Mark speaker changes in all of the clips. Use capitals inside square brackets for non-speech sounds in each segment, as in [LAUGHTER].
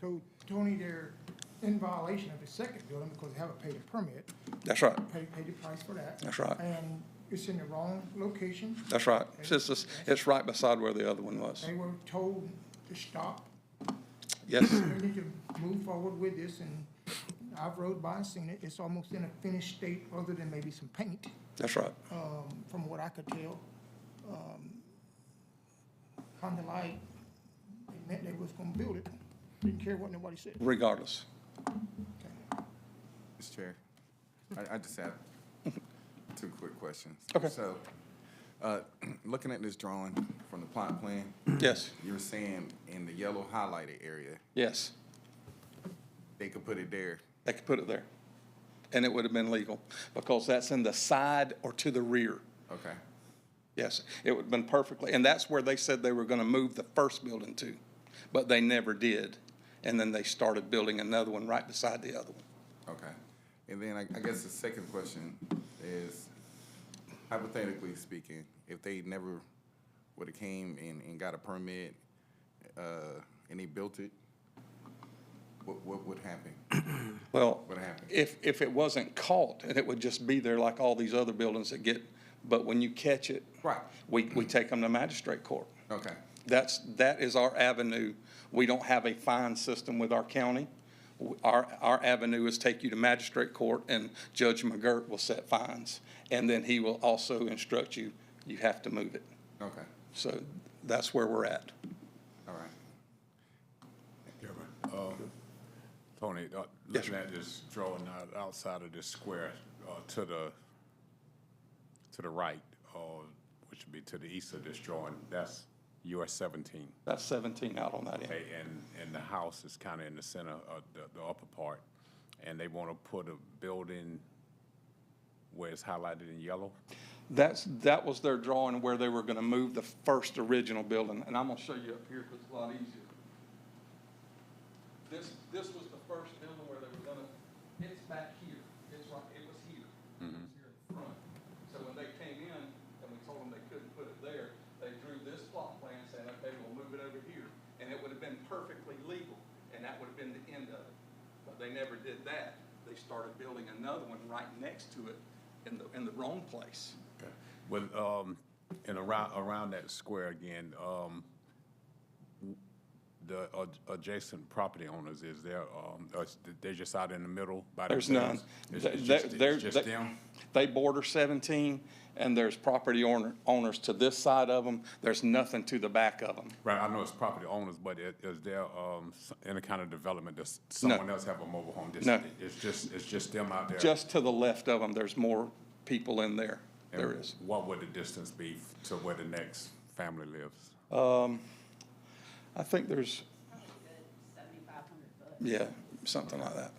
Speaker 1: So Tony, they're in violation of the second building because they haven't paid a permit,
Speaker 2: That's right.
Speaker 1: paid, paid the price for that.
Speaker 2: That's right.
Speaker 1: And it's in the wrong location.
Speaker 2: That's right. It's, just- it's, it's right beside where the other one was.
Speaker 1: They were told to stop.
Speaker 2: Yes,
Speaker 1: We need to move forward with this and I've rode by and seen it. It's almost in a finished state other than maybe some paint,
Speaker 2: that's right.
Speaker 1: um, from what I could tell. Um, Kind of like they meant they was gonna build it. Didn't care what nobody said.
Speaker 2: Regardless.
Speaker 3: Mr. Chair, I, I just have two quick questions.
Speaker 2: Okay.
Speaker 3: So, uh, [CLEARS THROAT] looking at this drawing from the plot plan,
Speaker 2: Yes,
Speaker 3: you're saying in the yellow highlighted area,
Speaker 2: yes.
Speaker 3: they could put it there.
Speaker 2: They could put it there. And it would have been legal because that's in the side or to the rear.
Speaker 3: Okay,
Speaker 2: Yes, it would have been perfectly, and that's where they said they were going to move the first building to, but they never did. And then they started building another one right beside the other one.
Speaker 3: okay. And then I, I guess the second question is hypothetically speaking, if they never would've came and, and got a permit, uh, and they built it, what, what would happen?
Speaker 2: Well,
Speaker 3: What happened?
Speaker 2: if, if it wasn't caught, and it would just be there like all these other buildings that get, but when you catch it.
Speaker 3: Right.
Speaker 2: We, we take them to magistrate court.
Speaker 3: Okay,
Speaker 2: That's, that is our avenue. We don't have a fine system with our county. Our, our avenue is take you to magistrate court and Judge McGirt will set fines. And then he will also instruct you, you have to move it.
Speaker 3: okay,
Speaker 2: So that's where we're at.
Speaker 3: all right.
Speaker 4: Chairman, uh, Tony, uh,
Speaker 2: Yes,
Speaker 4: looking at this drawing out, outside of this square, uh, to the, to the right, uh, which would be to the east of this drawing, that's US seventeen.
Speaker 2: That's 17 out on that end.
Speaker 4: Okay, and, and the house is kind of in the center of the, the upper part, and they want to put a building where it's highlighted in yellow?
Speaker 2: That's, that was their drawing where they were gonna move the first original building, and I'm gonna show you up here, 'cause it's a lot easier. This, this was the first building where they were gonna, it's back here, it's right, it was here. It was here in front. So when they came in and we told them they couldn't put it there, they drew this plot plan saying, okay, we'll move it over here. And it would have been perfectly legal, and that would have been the end of it. But they never did that. They started building another one right next to it in the, in the wrong place.
Speaker 4: Well, um, and around, around that square again, um, the ad- adjacent property owners, is there, um, uh, they're just out in the middle by
Speaker 2: There's none.
Speaker 4: themselves? It's-
Speaker 2: They-
Speaker 4: it's
Speaker 2: they-
Speaker 4: just-
Speaker 2: they're-
Speaker 4: It's just
Speaker 2: they-
Speaker 4: them?
Speaker 2: They border 17, and there's property owner, owners to this side of them. There's nothing to the back of them.
Speaker 4: Right, I know it's property owners, but i- is there, um, s- any kind of development, does someone else have a mobile home? Just-
Speaker 2: No.
Speaker 4: It's just, it's just them out there?
Speaker 2: Just to the left of them, there's more people in there.
Speaker 4: And
Speaker 2: There is.
Speaker 4: What would the distance be f- to where the next family lives?
Speaker 2: I think there's,
Speaker 5: Seventy-five hundred bucks.
Speaker 2: yeah, something like that.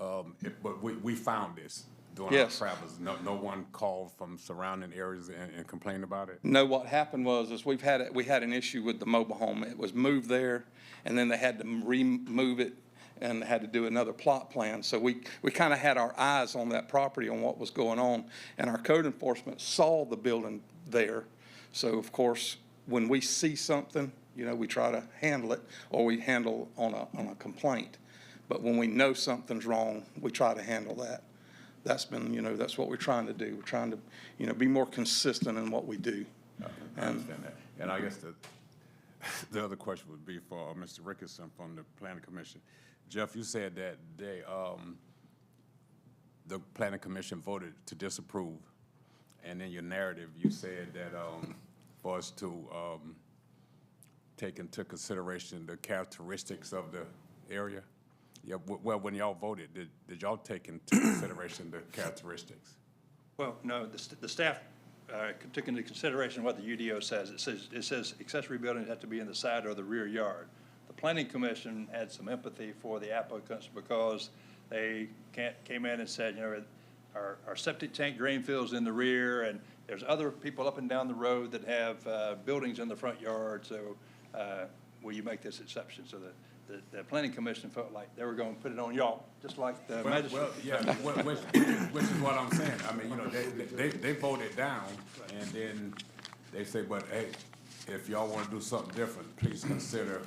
Speaker 4: Um, it- But we, we found this during our
Speaker 2: Yes.
Speaker 4: travels. No, no one called from surrounding areas and and complained about it?
Speaker 2: No, what happened was, is we've had, it. we had an issue with the mobile home. It was moved there, and then they had to remove it and had to do another plot plan. So we, we kind of had our eyes on that property, on what was going on. And our code enforcement saw the building there. So of course, when we see something, you know, we try to handle it, or we handle on a, on a complaint. But when we know something's wrong, we try to handle that. That's been, you know, that's what we're trying to do. We're trying to, you know, be more consistent in what we do.
Speaker 4: I understand that. And I guess the, [LAUGHS] the other question would be for Mr. Rickerson from the planning commission. Jeff, you said that they, um, the planning commission voted to disapprove. And in your narrative, you said that, um, for us to, um, take into consideration the characteristics of the area. Yeah, w- well, when y'all voted, did, did y'all take into consideration the characteristics?
Speaker 6: Well, no, the, st- the staff uh, took into consideration what the UDO says. It says, it says accessory buildings have to be in the side or the rear yard. The planning commission had some empathy for the applicants because they can't, came in and said, you know, our, our septic tank drain field's in the rear, and there's other people up and down the road that have uh, buildings in the front yard, so uh, will you make this exception? So the, the, the planning commission felt like they were going to put it on y'all, just like the
Speaker 4: Well,
Speaker 6: Uh, magistrate.
Speaker 4: well, yeah, wh- which, which is what I'm saying, I mean, you know, they, they, they voted down, and then they say, but hey, if y'all wanna do something different, please consider